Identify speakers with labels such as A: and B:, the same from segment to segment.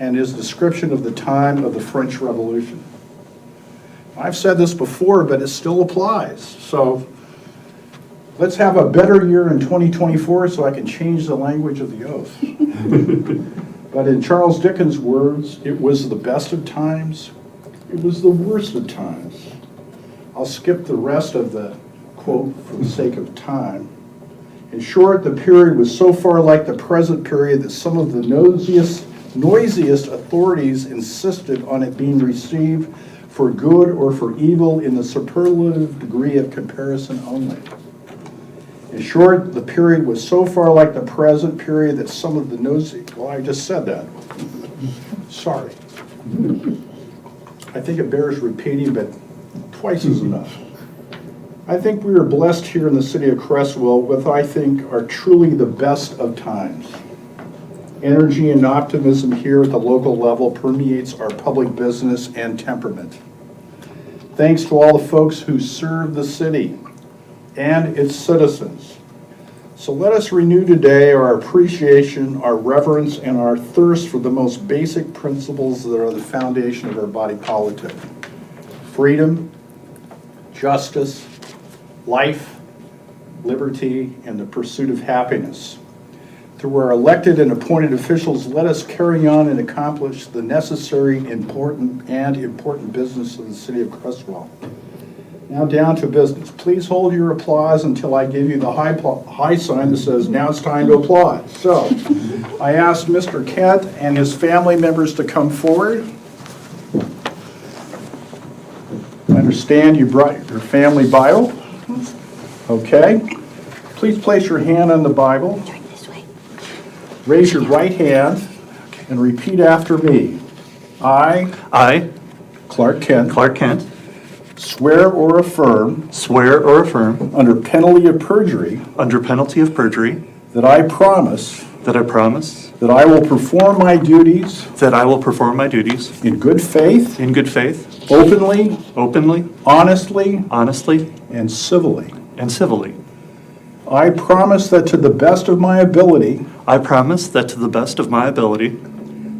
A: and his description of the time of the French Revolution. I've said this before, but it still applies. So let's have a better year in 2024 so I can change the language of the oath. But in Charles Dickens' words, it was the best of times, it was the worst of times. I'll skip the rest of the quote for the sake of time. In short, the period was so far like the present period that some of the noisiest, noisiest authorities insisted on it being received for good or for evil in the superlative degree of comparison only. In short, the period was so far like the present period that some of the nosy, well, I just said that. Sorry. I think it bears repeating, but twice is enough. I think we are blessed here in the city of Crestwell with, I think, are truly the best of times. Energy and optimism here at the local level permeates our public business and temperament. Thanks to all the folks who serve the city and its citizens. So let us renew today our appreciation, our reverence, and our thirst for the most basic principles that are the foundation of our body politic. Freedom, justice, life, liberty, and the pursuit of happiness. Through our elected and appointed officials, let us carry on and accomplish the necessary, important, and important business of the city of Crestwell. Now down to business. Please hold your applause until I give you the high, pl- high sign that says, now it's time to applaud. So, I asked Mr. Kent and his family members to come forward. I understand you brought your family Bible. Okay. Please place your hand on the Bible. Raise your right hand and repeat after me. I,
B: I,
A: Clark Kent,
B: Clark Kent,
A: swear or affirm
B: swear or affirm,
A: under penalty of perjury
B: under penalty of perjury,
A: That I promise
B: that I promise
A: that I will perform my duties
B: that I will perform my duties
A: in good faith,
B: in good faith,
A: openly,
B: openly,
A: honestly,
B: honestly,
A: and civilly.
B: and civilly.
A: I promise that to the best of my ability,
B: I promise that to the best of my ability,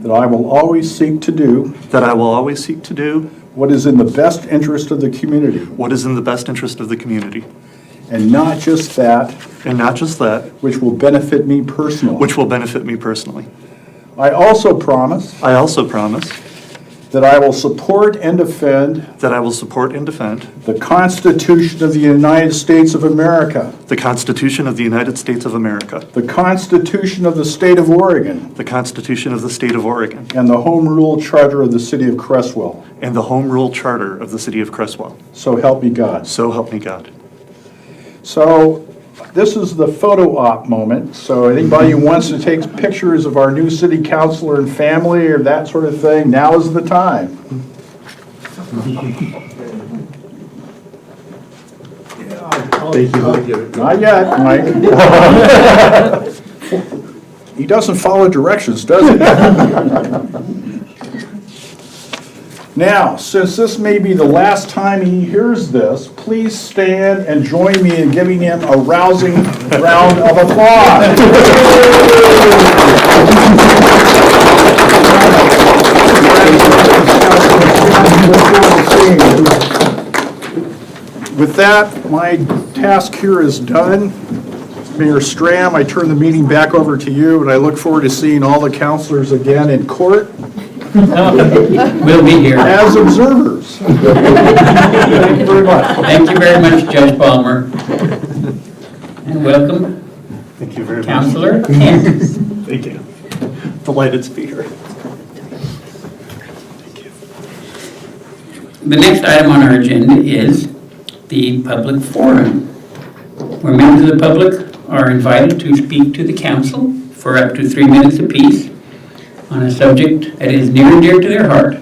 A: that I will always seek to do
B: that I will always seek to do
A: what is in the best interest of the community,
B: what is in the best interest of the community,
A: and not just that
B: and not just that,
A: which will benefit me personally.
B: which will benefit me personally.
A: I also promise
B: I also promise
A: that I will support and defend
B: that I will support and defend
A: the Constitution of the United States of America,
B: the Constitution of the United States of America,
A: the Constitution of the State of Oregon,
B: the Constitution of the State of Oregon,
A: and the Home Rule Charter of the City of Crestwell.
B: and the Home Rule Charter of the City of Crestwell.
A: So help me God.
B: So help me God.
A: So this is the photo op moment. So anybody who wants to take pictures of our new city councilor and family or that sort of thing, now is the time.
C: Thank you. I'll give it.
A: Not yet, Mike. He doesn't follow directions, does he? Now, since this may be the last time he hears this, please stand and join me in giving him a rousing round of applause. With that, my task here is done. Mayor Stram, I turn the meeting back over to you, and I look forward to seeing all the counselors again in court
D: We'll be here.
A: as observers. Thank you very much.
D: Thank you very much, Judge Palmer. And welcome,
B: Thank you very much.
D: Counselor Kent.
B: Thank you. Delighted to be here.
D: The next item on our agenda is the public forum, where members of the public are invited to speak to the council for up to three minutes apiece on a subject that is near and dear to their heart.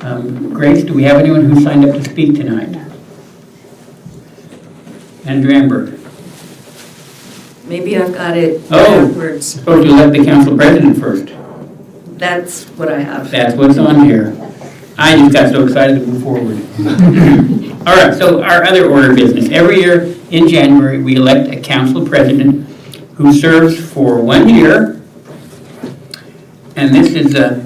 D: Um, Grace, do we have anyone who signed up to speak tonight? Andrew Amber,
E: Maybe I've got it
D: Oh.
E: backwards.
D: supposed to let the council president first.
E: That's what I have.
D: That's what's on here. I just got so excited to move forward. All right, so our other order of business. Every year in January, we elect a council president who serves for one year. And this is uh, a